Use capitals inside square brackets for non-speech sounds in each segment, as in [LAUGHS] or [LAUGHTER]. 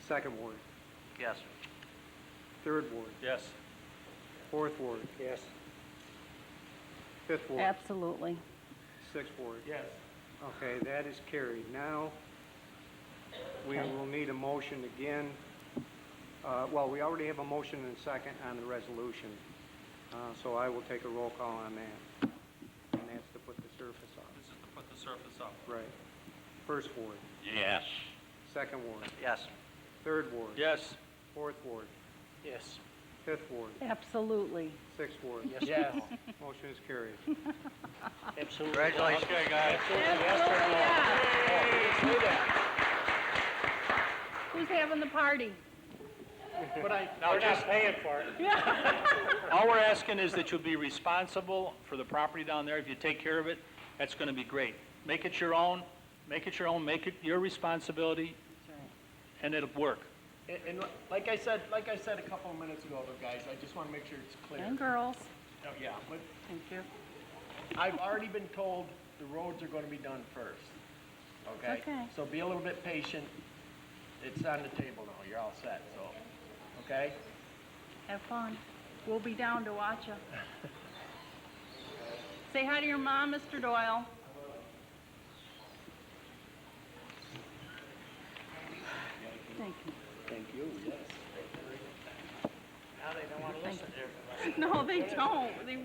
Second ward, Yes. third ward, Yes. fourth ward, Yes. fifth ward, Absolutely. sixth ward. Yes. Okay, that is carried. Now, we will need a motion again. Uh, Well, we already have a motion and a second on the resolution, Uh, so I will take a roll call on that. And that's to put the surface on. This is to put the surface up. Right. First ward, Yes. second ward, Yes. third ward. Yes. Fourth ward, Yes. fifth ward, Absolutely. sixth ward. Yes. Motion is carried. Absolutely. Congratulations. Okay, guys. Who's having the party? Now, just paying for it. [LAUGHS] All we're asking is that you be responsible for the property down there. If you take care of it, that's gonna be great. Make it your own, make it your own, make it your responsibility, and it'll work. And, and li- like I said, like I said a couple of minutes ago, though, guys, I just want to make sure it's clear. And girls. Oh, Yeah, but Thank you. I've already been told the roads are going to be done first, okay? Okay. So be a little bit patient. It's on the table now, you're all set, so, okay? Have fun. We'll be down to watch you. Say hi to your mom, Mr. Doyle. Thank you. Thank you, yes. No, they don't. They,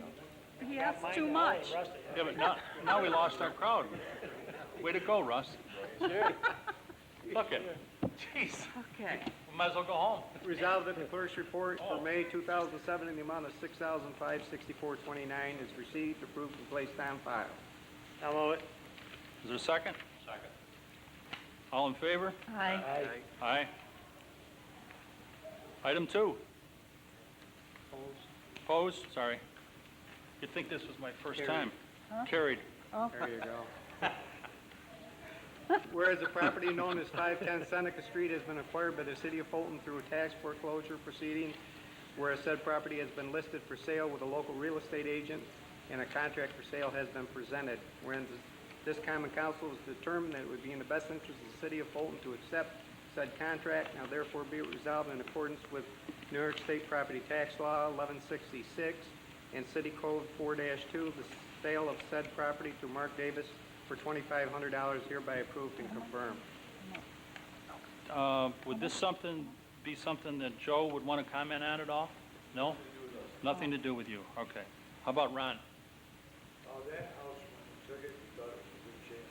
he asks too much. Yeah, but now, now we lost our crowd. Way to go, Russ. Look at, jeez, Okay. we might as well go home. Resolved that the clerk's report for May 2007 in the amount of 6564 dollars is received, approved, and placed on file. Is there a second? Second. All in favor? Hi. Aye. Item two. Opposed? Sorry. You'd think this was my first time. Carried. Carried. Oh, There you go. [LAUGHS] Whereas the property known as 510 Seneca Street has been acquired by the city of Fulton through a tax foreclosure proceeding, whereas said property has been listed for sale with a local real estate agent, and a contract for sale has been presented, wherein this common council has determined that it would be in the best interest of the city of Fulton to accept said contract, now therefore be it resolved in accordance with New York State Property Tax Law 1166 and City Code 4-2, the sale of said property to Mark Davis for $2,500 hereby approved and confirmed. Uh, Would this something, be something that Joe would want to comment on at all? No? Nothing to do with you? Okay. How about Ron? Uh, that house, when we took it, we thought it was in good shape,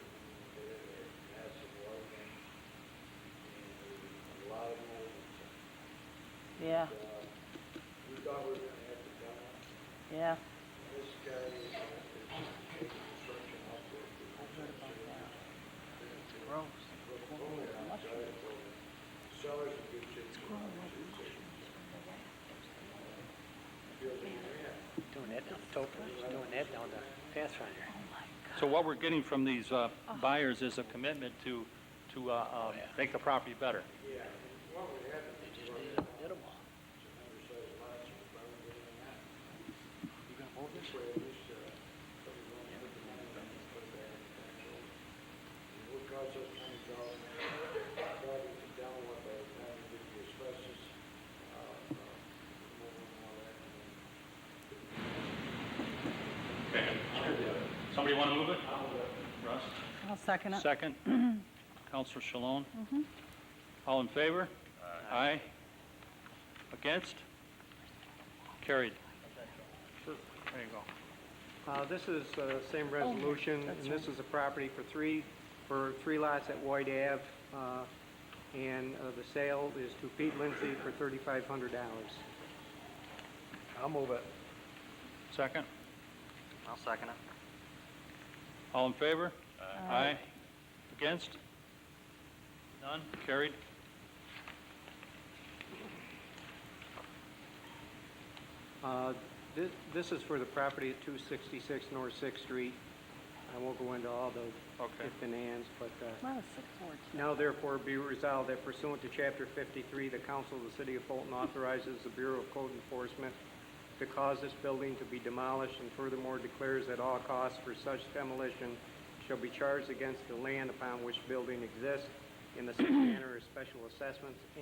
we did it, it had some water main, and there was a lot of mold and stuff. yeah, Uh, We thought we were gonna have to come up, yeah. this guy is, uh, is taking construction up there. Oh, Gross. Sellers in good shape. Feels like a man. Doing that, doing that down the Pathfinder. So what we're getting from these uh, buyers is a commitment to, to uh, uh, make the property better. Yeah, and what would happen They is just we're did gonna it, did 'em all. have some undersized lots, and we're probably gonna have that. You gonna hold this? This way, at least, uh, somebody will put the money back and put it back in the tax roll. It would cost us twenty thousand, probably to download by the time we did the asbestos, uh, uh, more and all that. and then Somebody want to move it? I'll, uh, Russ? I'll second it. Second. Counselor Shalom? All in favor? Aye. Against? Carried. There you go. Uh, This is the same resolution, and this is a property for three, for three lots at White Ave, uh, and uh, the sale is to Pete Lindsay for $3,500. I'll move it. Second? I'll second it. All in favor? Aye. Against? None? Carried. Uh, thi- This is for the property at 266 North Sixth Street. I won't go into all the Okay. ifs and ands, but uh, Wow, six words. Now therefore be resolved that pursuant to Chapter 53, the Council of the City of Fulton authorizes the Bureau of Code Enforcement to cause this building to be demolished and furthermore declares that all costs for such demolition shall be charged against the land upon which building exists in the same manner as special assessments